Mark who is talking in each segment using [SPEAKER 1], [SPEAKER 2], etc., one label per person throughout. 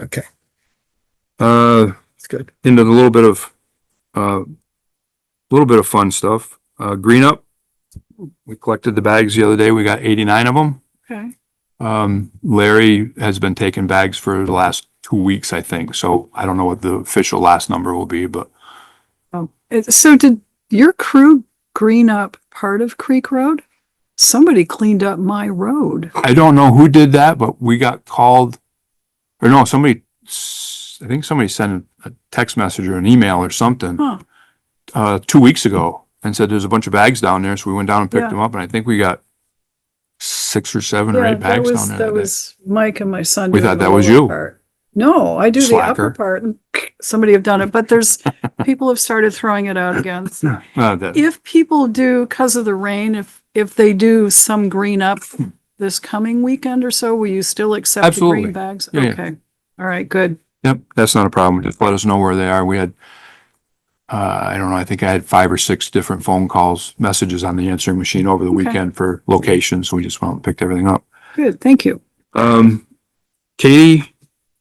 [SPEAKER 1] Okay. Uh,
[SPEAKER 2] It's good.
[SPEAKER 1] into the little bit of, uh, little bit of fun stuff, uh, green up. We collected the bags the other day. We got eighty-nine of them.
[SPEAKER 3] Okay.
[SPEAKER 1] Um, Larry has been taking bags for the last two weeks, I think. So I don't know what the official last number will be, but
[SPEAKER 3] Oh, it- so did your crew green up part of Creek Road? Somebody cleaned up my road.
[SPEAKER 1] I don't know who did that, but we got called. Or no, somebody, s- I think somebody sent a text message or an email or something.
[SPEAKER 3] Huh.
[SPEAKER 1] uh, two weeks ago and said there's a bunch of bags down there. So we went down and picked
[SPEAKER 3] Yeah.
[SPEAKER 1] them up and I think we got six or seven or
[SPEAKER 3] Yeah,
[SPEAKER 1] eight
[SPEAKER 3] that
[SPEAKER 1] bags
[SPEAKER 3] was-
[SPEAKER 1] down there.
[SPEAKER 3] That
[SPEAKER 1] that day.
[SPEAKER 3] was Mike and my son.
[SPEAKER 1] We
[SPEAKER 3] doing
[SPEAKER 1] thought
[SPEAKER 3] the
[SPEAKER 1] that was
[SPEAKER 3] lower
[SPEAKER 1] you.
[SPEAKER 3] part. No, I do the upper
[SPEAKER 1] Slacker.
[SPEAKER 3] part. and Somebody have done it, but there's, people have started throwing it out again. so.
[SPEAKER 1] Uh, that-
[SPEAKER 3] If people do, because of the rain, if, if they do some green up
[SPEAKER 1] Hmm.
[SPEAKER 3] this coming weekend or so, will you still accept the
[SPEAKER 1] Absolutely.
[SPEAKER 3] green bags?
[SPEAKER 1] Yeah, yeah.
[SPEAKER 3] Okay. All right, good.
[SPEAKER 1] Yep, that's not a problem. Just let us know where they are. We had, uh, I don't know, I think I had five or six different phone calls, messages on the answering machine over the
[SPEAKER 3] Okay.
[SPEAKER 1] weekend for locations. So we just went and picked everything up.
[SPEAKER 3] Good, thank you.
[SPEAKER 1] Um, Katie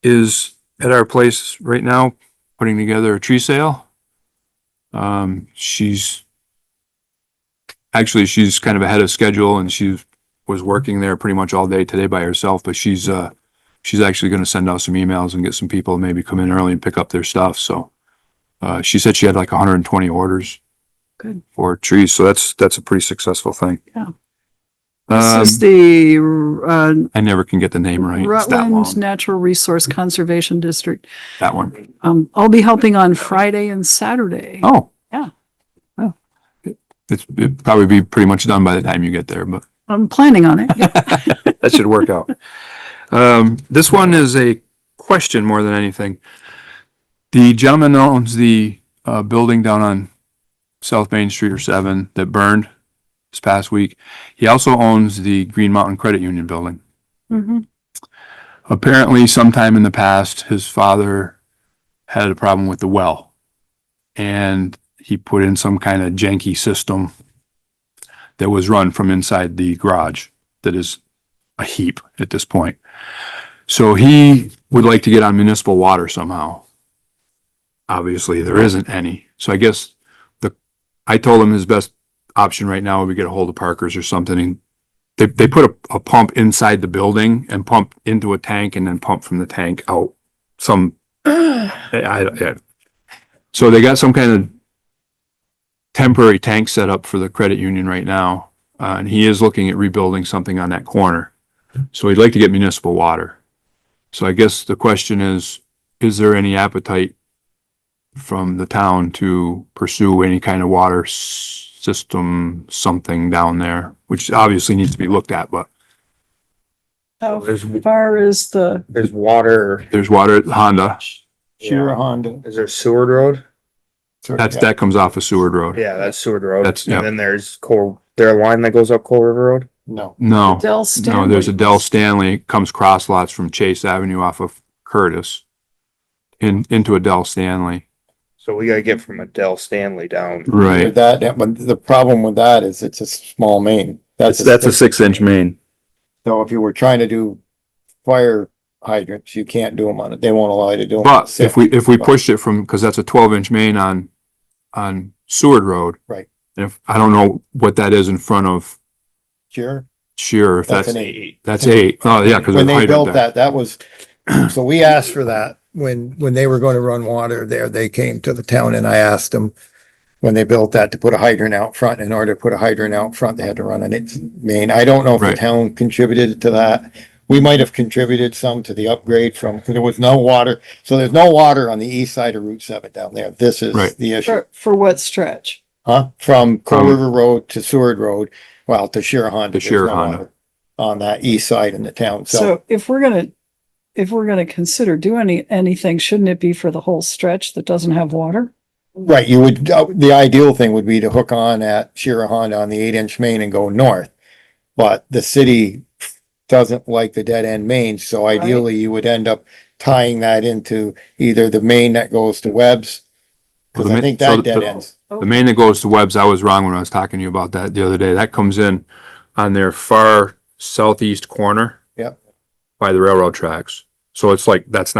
[SPEAKER 1] is at our place right now, putting together a tree sale. Um, she's actually, she's kind of ahead of schedule and she was working there pretty much all day today by herself, but she's, uh, she's actually going to send out some emails and get some people to maybe come in early and pick up their stuff. So, uh, she said she had like hundred and twenty orders.
[SPEAKER 3] Good.
[SPEAKER 1] For trees. So that's, that's a pretty successful thing.
[SPEAKER 3] Yeah.
[SPEAKER 1] Um,
[SPEAKER 3] This is the, uh,
[SPEAKER 1] I never can get the name right. It's that long.
[SPEAKER 3] Rutland Natural Resource Conservation District.
[SPEAKER 1] That one.
[SPEAKER 3] Um, I'll be helping on Friday and Saturday.
[SPEAKER 1] Oh.
[SPEAKER 3] Yeah.
[SPEAKER 1] Oh. It- It's, it'd probably be pretty much done by the time you get there, but
[SPEAKER 3] I'm planning on it. Yeah.
[SPEAKER 1] that should work out. Um, this one is a question more than anything. The gentleman that owns the, uh, building down on South Main Street or seven that burned this past week. He also owns the Green Mountain Credit Union building.
[SPEAKER 3] Mhm.
[SPEAKER 1] apparently sometime in the past, his father had a problem with the well. And he put in some kind of janky system that was run from inside the garage that is a heap at this point. So he would like to get on municipal water somehow. Obviously, there isn't any. So I guess the, I told him his best option right now would be get a hold of Parkers or something and they, they put a, a pump inside the building and pump into a tank and then pump from the tank out some, I, I, yeah. So they got some kind of temporary tank set up for the credit union right now. Uh, and he is looking at rebuilding something on that corner. So he'd like to get municipal water. So I guess the question is, is there any appetite from the town to pursue any kind of water s- system, something down there, which obviously needs to be looked at, but
[SPEAKER 3] How
[SPEAKER 2] There's,
[SPEAKER 1] Oh.
[SPEAKER 3] far is the,
[SPEAKER 2] there's water.
[SPEAKER 1] there's water at Honda.
[SPEAKER 2] Shira Honda. Is there Seward Road?
[SPEAKER 1] That's, that comes off of Seward Road.
[SPEAKER 2] Yeah, that's Seward Road.
[SPEAKER 1] That's- yeah.
[SPEAKER 2] And then there's Core, there a line that goes up Core River Road? No.
[SPEAKER 1] No,
[SPEAKER 3] Dell
[SPEAKER 1] no,
[SPEAKER 3] Stanley?
[SPEAKER 1] there's a Dell Stanley, it comes cross lots from Chase Avenue off of Curtis in, into a Dell Stanley.
[SPEAKER 2] So we gotta get from Adele Stanley down.
[SPEAKER 4] With that, that- but the problem with that is it's a small main.
[SPEAKER 1] That's, that's a six inch main.
[SPEAKER 4] So if you were trying to do fire hydrants, you can't do them on it. They won't allow you to do them.
[SPEAKER 1] But if we, if we pushed it from, because that's a twelve inch main on, on Seward Road.
[SPEAKER 4] Right.
[SPEAKER 1] And If, I don't know what that is in front of
[SPEAKER 4] Sure.
[SPEAKER 1] Shearer, if
[SPEAKER 4] That's
[SPEAKER 1] that's,
[SPEAKER 4] an eight.
[SPEAKER 1] that's eight. Oh, yeah, because.
[SPEAKER 4] When they built that, that was, so we asked for that when, when they were going to run water there, they came to the town and I asked them when they built that to put a hydrant out front. In order to put a hydrant out front, they had to run an its main. I don't know if the
[SPEAKER 1] Right.
[SPEAKER 4] town contributed to that. We might have contributed some to the upgrade from, because there was no water. So there's no water on the east side of Route seven down there. This is
[SPEAKER 1] Right.
[SPEAKER 4] the issue.
[SPEAKER 3] For, for what stretch?
[SPEAKER 4] Huh? From Crow
[SPEAKER 1] From-
[SPEAKER 4] River Road to Seward Road, well, to Shirahonda.
[SPEAKER 1] To
[SPEAKER 4] there's no
[SPEAKER 1] Shirahonda.
[SPEAKER 4] water On that east side in the town, so
[SPEAKER 3] So if we're gonna, if we're gonna consider doing any, anything, shouldn't it be for the whole stretch that doesn't have water?
[SPEAKER 4] Right, you would, uh, the ideal thing would be to hook on at Shira Honda on the eight inch main and go north. But the city doesn't like the dead end mains, so ideally you would end up tying that into either the main that goes to Webb's. Cause I think that dead ends.
[SPEAKER 1] The main that goes to Webb's, I was wrong when I was talking to you about that the other day. That comes in on their far southeast corner.
[SPEAKER 4] Yep.
[SPEAKER 1] By the railroad tracks. So it's like, that's not.